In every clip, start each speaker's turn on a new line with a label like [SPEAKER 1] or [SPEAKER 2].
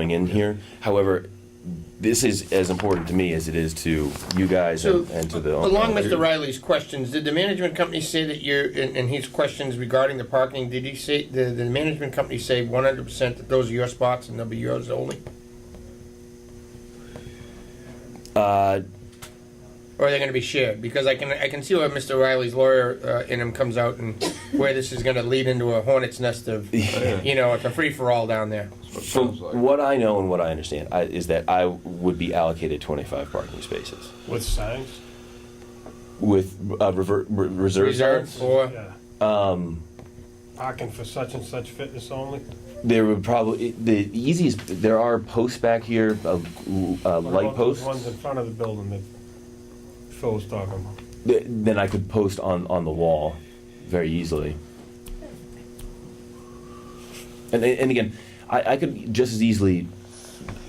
[SPEAKER 1] going in here. However, this is as important to me as it is to you guys
[SPEAKER 2] So,
[SPEAKER 1] and and to the.
[SPEAKER 2] Along Mr. Riley's questions, did the management company say that you're, and and his questions regarding the parking, did he say, did the management company say 100% that those are your spots and they'll be yours only?
[SPEAKER 1] Uh,
[SPEAKER 2] Or are they going to be shared? Because I can, I can see where Mr. Riley's lawyer uh, in him comes out and where this is going to lead into a hornet's nest of, you know, it's a free-for-all down there.
[SPEAKER 1] From what I know and what I understand, I, is that I would be allocated twenty-five parking spaces
[SPEAKER 3] With signs?
[SPEAKER 1] with uh, rever- re- reserve.
[SPEAKER 2] Reserved
[SPEAKER 1] signs.
[SPEAKER 2] for,
[SPEAKER 3] Yeah. Um. Parking for such and such fitness only?
[SPEAKER 1] There would probably the easiest. There are posts back here, uh, uh,
[SPEAKER 3] What
[SPEAKER 1] light
[SPEAKER 3] about those
[SPEAKER 1] posts.
[SPEAKER 3] Ones in front of the building that Phil was talking about.
[SPEAKER 1] Th- Then I could post on on the wall, very easily. And and again, I, I could just as easily.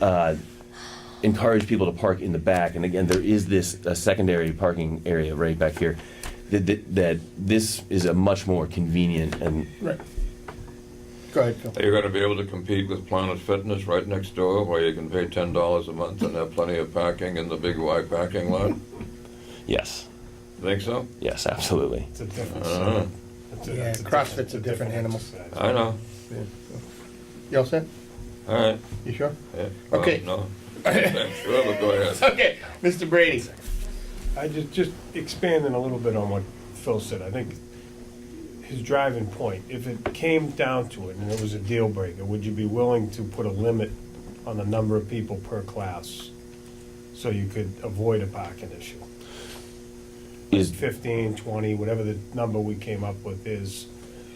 [SPEAKER 1] Uh, encourage people to park in the back. And again, there is this uh, secondary parking area right back here. That, that, that this is a much more convenient and
[SPEAKER 2] right. Go ahead, Phil.
[SPEAKER 4] You're gonna be able to compete with Planet Fitness right next door, where you can pay ten dollars a month and have plenty of parking in the Big Y parking lot?
[SPEAKER 1] yes,
[SPEAKER 4] Think so?
[SPEAKER 1] yes, absolutely.
[SPEAKER 3] It's a different.
[SPEAKER 4] Uh-huh.
[SPEAKER 3] it's
[SPEAKER 2] Yeah,
[SPEAKER 3] it's
[SPEAKER 2] CrossFit's a different animal.
[SPEAKER 3] exercise.
[SPEAKER 4] I know,
[SPEAKER 2] You all set?
[SPEAKER 4] all right.
[SPEAKER 2] You sure?
[SPEAKER 4] Yeah, well,
[SPEAKER 2] Okay.
[SPEAKER 4] No, I'm sure, but go ahead.
[SPEAKER 2] Okay, Mr. Brady.
[SPEAKER 3] I just, just expanding a little bit on what Phil said, I think his driving point, if it came down to it and it was a deal breaker, would you be willing to put a limit on the number of people per class? So you could avoid a parking issue?
[SPEAKER 1] Is
[SPEAKER 3] Fifteen, twenty, whatever the number we came up with is,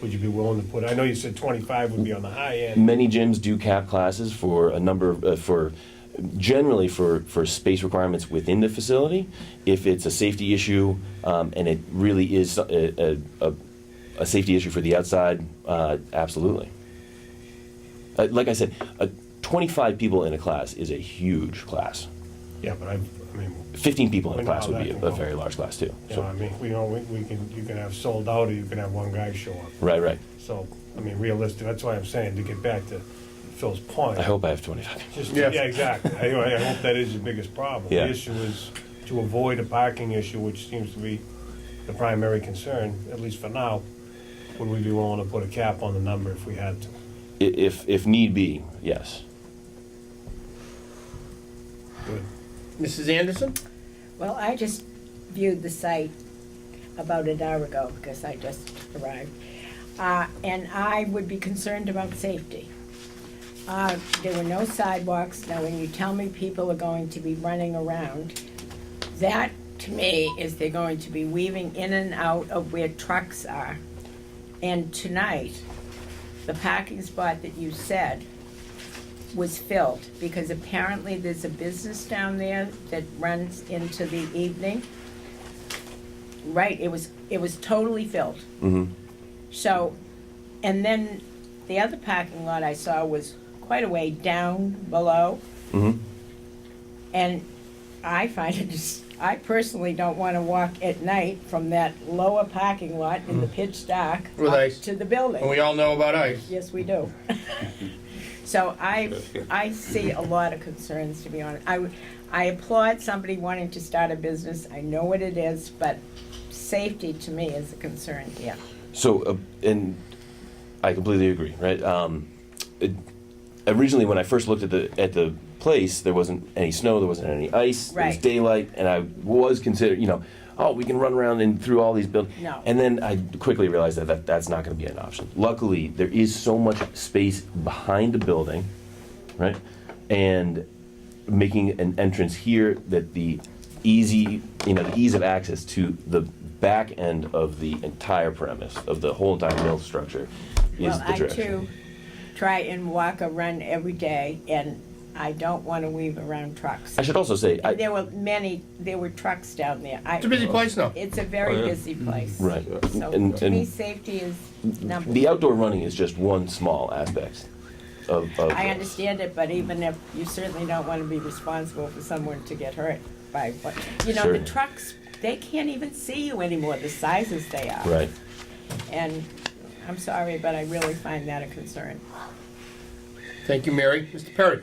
[SPEAKER 3] would you be willing to put, I know you said twenty-five would be on the high end.
[SPEAKER 1] many gyms do cap classes for a number of, uh, for generally for, for space requirements within the facility. If it's a safety issue um, and it really is a, a, a, a safety issue for the outside, uh, absolutely. Uh, like I said, uh, 25 people in a class is a huge class.
[SPEAKER 3] Yeah, but I, I mean,
[SPEAKER 1] 15 people in a
[SPEAKER 3] I know
[SPEAKER 1] class
[SPEAKER 3] how
[SPEAKER 1] would be
[SPEAKER 3] that
[SPEAKER 1] a,
[SPEAKER 3] can
[SPEAKER 1] a
[SPEAKER 3] go.
[SPEAKER 1] very large class too.
[SPEAKER 3] you
[SPEAKER 1] So,
[SPEAKER 3] know, I mean, we know, we we can, you can have sold out or you can have one guy show up.
[SPEAKER 1] right, right.
[SPEAKER 3] So, I mean, realistic, that's why I'm saying, to get back to Phil's point.
[SPEAKER 1] I hope I have 25.
[SPEAKER 3] Just, yeah,
[SPEAKER 2] Yes.
[SPEAKER 3] exactly. I, I hope that is your biggest problem.
[SPEAKER 1] Yeah.
[SPEAKER 3] The issue is to avoid a parking issue, which seems to be the primary concern, at least for now. Would we be willing to put a cap on the number if we had to?
[SPEAKER 1] I- If, if need be, yes.
[SPEAKER 3] Good.
[SPEAKER 2] Mrs. Anderson?
[SPEAKER 5] Well, I just viewed the site about an hour ago because I just arrived. Uh, and I would be concerned about safety. Uh, there were no sidewalks. Now, when you tell me people are going to be running around, that to me is they're going to be weaving in and out of where trucks are. And tonight, the parking spot that you said was filled, because apparently there's a business down there that runs into the evening. Right, it was, it was totally filled.
[SPEAKER 1] Mhm.
[SPEAKER 5] So, and then the other parking lot I saw was quite a way down below.
[SPEAKER 1] Mhm.
[SPEAKER 5] And I find it, dis- I personally don't wanna walk at night from that lower parking lot in the pitch dark
[SPEAKER 2] With
[SPEAKER 5] up
[SPEAKER 2] ice.
[SPEAKER 5] to the building.
[SPEAKER 2] And we all know about ice.
[SPEAKER 5] Yes, we do. So I, I see a lot of concerns, to be honest. I, would- I applaud somebody wanting to start a business, I know what it is, but safety to me is a concern, yeah.
[SPEAKER 1] So, uh, and I completely agree, right? Um, it, originally, when I first looked at the at the place, there wasn't any snow, there wasn't any ice, there was
[SPEAKER 5] Right.
[SPEAKER 1] daylight, and I was considered, you know, oh, we can run around and through all these buildings.
[SPEAKER 5] No.
[SPEAKER 1] And then I quickly realized that, that that's not going to be an option. Luckily, there is so much space behind the building, right? And making an entrance here that the easy, you know, the ease of access to the back end of the entire premise, of the whole entire mill structure, is
[SPEAKER 5] Well,
[SPEAKER 1] the
[SPEAKER 5] I
[SPEAKER 1] direction.
[SPEAKER 5] too try and walk a run every day, and I don't wanna weave around trucks.
[SPEAKER 1] I should also say,
[SPEAKER 5] And
[SPEAKER 1] I,
[SPEAKER 5] There were many, there were trucks down there. I-
[SPEAKER 2] It's a busy place now.
[SPEAKER 5] It's a
[SPEAKER 4] Oh,
[SPEAKER 5] very
[SPEAKER 4] yeah.
[SPEAKER 5] busy place.
[SPEAKER 1] right,
[SPEAKER 5] So
[SPEAKER 1] and,
[SPEAKER 5] to me,
[SPEAKER 1] and
[SPEAKER 5] safety is number
[SPEAKER 1] the outdoor running is just one small aspect of, of.
[SPEAKER 5] I
[SPEAKER 1] this.
[SPEAKER 5] understand it, but even if, you certainly don't want to be responsible for someone to get hurt by what, you know, the
[SPEAKER 1] Sure.
[SPEAKER 5] trucks, they can't even see you anymore, the sizes they are.
[SPEAKER 1] Right.
[SPEAKER 5] And I'm sorry, but I really find that a concern.
[SPEAKER 2] Thank you, Mary. Mr. Perry?